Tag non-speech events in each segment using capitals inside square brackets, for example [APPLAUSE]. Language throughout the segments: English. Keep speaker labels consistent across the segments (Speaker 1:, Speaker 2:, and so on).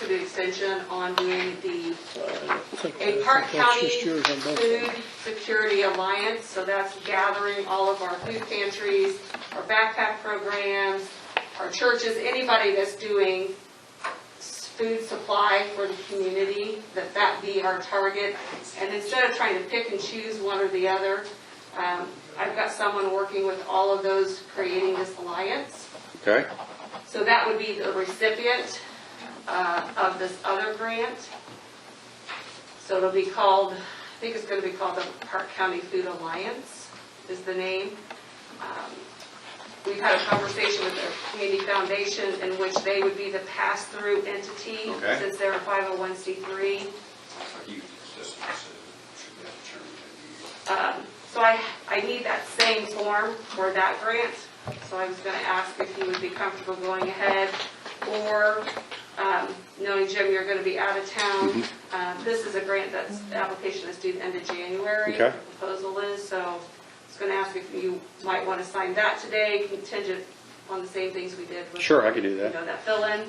Speaker 1: to the extension on doing the
Speaker 2: think
Speaker 1: a
Speaker 2: that-
Speaker 1: Park
Speaker 2: that's
Speaker 1: County
Speaker 2: just yours on both of
Speaker 1: Food
Speaker 2: them.
Speaker 1: Security Alliance, so that's gathering all of our food pantries, our backpack programs, our churches, anybody that's doing s- food supply for the community, that that be our target. And instead of trying to pick and choose one or the other, um, I've got someone working with all of those, creating this alliance.
Speaker 3: Okay,
Speaker 1: So that would be the recipient uh, of this other grant. So it'll be called, I think it's going to be called the Park County Food Alliance is the name. Um, We've had a conversation with the Community Foundation in which they would be the pass-through entity
Speaker 3: Okay.
Speaker 1: since they're a 501c3.
Speaker 4: huge system, so should be determined in the
Speaker 1: So I, I need that same form for that grant, so I was gonna ask if you would be comfortable going ahead, or, um, knowing Jim, you're gonna be out of town.
Speaker 3: Mm-hmm.
Speaker 1: Uh, This is a grant that's, the application is due the end of January.
Speaker 3: Okay.
Speaker 1: the Proposal is, so I was gonna ask if you might wanna sign that today, contingent on the same things we did with.
Speaker 3: sure, I can do
Speaker 1: You
Speaker 3: that.
Speaker 1: know, that fill-in,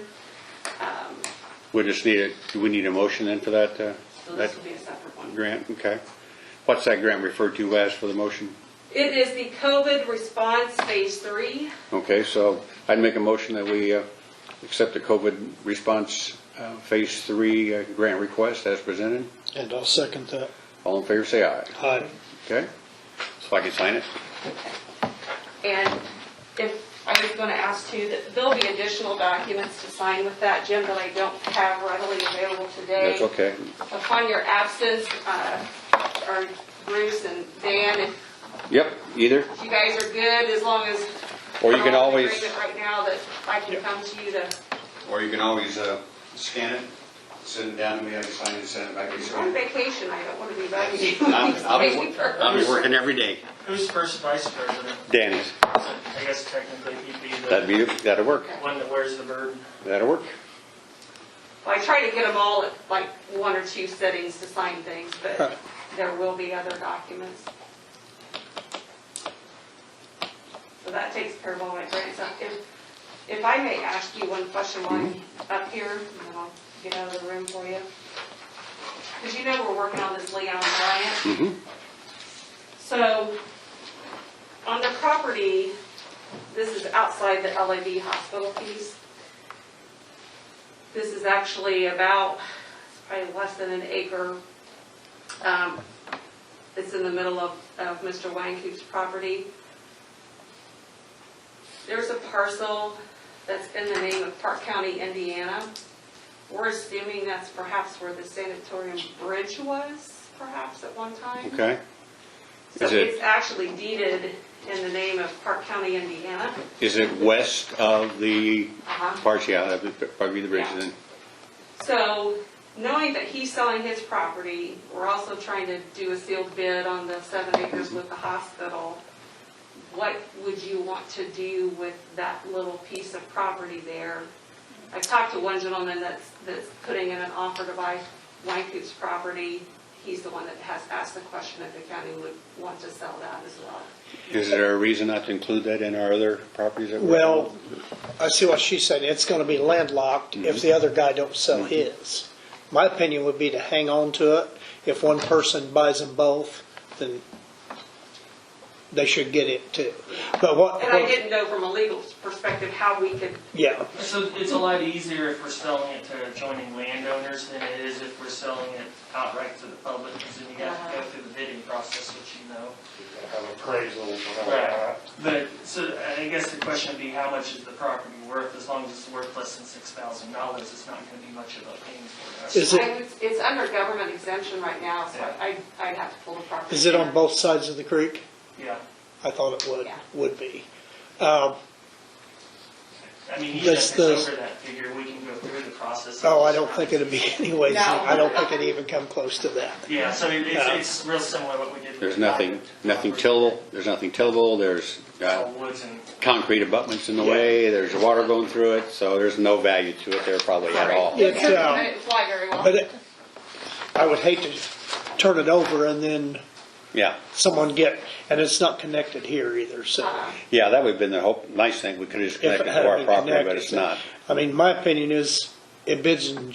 Speaker 3: We just need, a. do we need a motion then for that, uh,
Speaker 1: so
Speaker 3: that
Speaker 1: this will be a separate one.
Speaker 3: grant? Okay. What's that grant referred to as for the motion?
Speaker 1: It is the COVID response phase three.
Speaker 3: Okay, so I'd make a motion that we uh, accept the COVID response uh, Phase 3 uh, grant request as presented.
Speaker 2: And I'll second that.
Speaker 3: All in favor, say aye.
Speaker 2: Aye.
Speaker 3: Okay? So I can sign it?
Speaker 1: And if, I was gonna ask too, that there'll be additional documents to sign with that, Jim, that I don't have readily available today.
Speaker 3: That's okay.
Speaker 1: Upon your absence, uh, or Bruce and Dan, if
Speaker 3: Yep, either.
Speaker 1: you guys are good, as long as.
Speaker 3: Or you can
Speaker 1: I'm in
Speaker 3: always-
Speaker 1: agreement Right now that I can come to you to,
Speaker 4: future. Or you can always uh, scan it, send it down to me, I can sign it, and send it back to you.
Speaker 1: I'm on vacation, I don't wanna be bugging you.
Speaker 4: I'm- I'll be-
Speaker 1: [LAUGHS] Waiting for-
Speaker 3: I'll be working every day.
Speaker 5: Who's first vice president?
Speaker 3: Danny's.
Speaker 5: I guess technically he'd be
Speaker 3: That'd
Speaker 5: the
Speaker 3: be, that'll work.
Speaker 5: one that wears the burden.
Speaker 3: That'll work.
Speaker 1: Well, I try to get them all at like one or two settings to sign things, but
Speaker 2: Right.
Speaker 1: there will be other documents. So that takes care of all my grants. Uh, If, if I may ask you one question while I'm up here, and then I'll get out of the room for you. Because you know we're working on this Leon Bryant.
Speaker 3: Mhm.
Speaker 1: So on the property, this is outside the LAB hospital piece. This is actually about, it's probably less than an acre. Um, It's in the middle of, of Mr. Wangkuk's property. There's a parcel that's in the name of Park County, Indiana. We're assuming that's perhaps where the sanatorium bridge was, perhaps at one time.
Speaker 3: Okay?
Speaker 1: So
Speaker 3: Is it-
Speaker 1: it's actually deeded in the name of Park County, Indiana.
Speaker 3: Is it west of the,
Speaker 1: Uh-huh.
Speaker 3: parts, yeah, that'd be- probably be the bridge
Speaker 1: Yeah.
Speaker 3: then?
Speaker 1: So, knowing that he's selling his property, we're also trying to do a sealed bid on the seven acres with the hospital. What would you want to do with that little piece of property there? I talked to one gentleman that's, that's putting in an offer to buy Wykoop's property. He's the one that has asked the question if the county would want to sell that as well.
Speaker 3: Is there a reason not to include that in our other properties that we're?
Speaker 2: Well, I see what she's saying. It's gonna be landlocked if the other guy don't sell his. My opinion would be to hang on to it. If one person buys them both, then they should get it too. But what?
Speaker 1: And I didn't know from a legal perspective how we could
Speaker 2: Yeah,
Speaker 5: So it's a lot easier if we're selling it to adjoining landowners than it is if we're selling it outright to the public, because then you have to go through the bidding process, which you know.
Speaker 6: have appraisals and all
Speaker 5: Right,
Speaker 6: that.
Speaker 5: but, so I guess the question would be, how much is the property worth? As long as it's worth less than six thousand dollars, it's not gonna be much of a pain for us.
Speaker 2: Is it-
Speaker 1: I would- It's under government exemption right now, so I, I'd have to pull the property.
Speaker 2: is it on both sides of the creek?
Speaker 5: Yeah,
Speaker 2: I thought it would,
Speaker 1: Yeah.
Speaker 2: would be. Um,
Speaker 5: I mean, even if
Speaker 2: Does
Speaker 5: it's
Speaker 2: the-
Speaker 5: over that figure, we can go through the process.
Speaker 2: Oh, I don't think it'd be [LAUGHS] anyways.
Speaker 1: No.
Speaker 2: I don't think it'd even come close to that.
Speaker 5: Yeah, so it-
Speaker 2: Yeah.
Speaker 5: it's, it's real similar to what we did. with
Speaker 3: There's
Speaker 5: the
Speaker 3: nothing,
Speaker 5: private
Speaker 3: nothing
Speaker 5: property.
Speaker 3: tillable, there's nothing tillable, there's
Speaker 5: It's
Speaker 3: uh,
Speaker 5: all woods and
Speaker 3: concrete abutments in the way, there's water going through it, so there's no value to it there probably at all.
Speaker 2: Yeah. It's, uh,
Speaker 1: I didn't fly very well.
Speaker 2: But it, I would hate to turn it over and then
Speaker 3: Yeah,
Speaker 2: someone get, and it's not connected here either, so.
Speaker 3: yeah, that would've been the hope, nice thing, we could've
Speaker 2: if
Speaker 3: just
Speaker 2: it
Speaker 3: connected
Speaker 2: had
Speaker 3: to our
Speaker 2: been
Speaker 3: property, but
Speaker 2: connected,
Speaker 3: it's
Speaker 2: so-
Speaker 3: not.
Speaker 2: I mean, my opinion is it bids in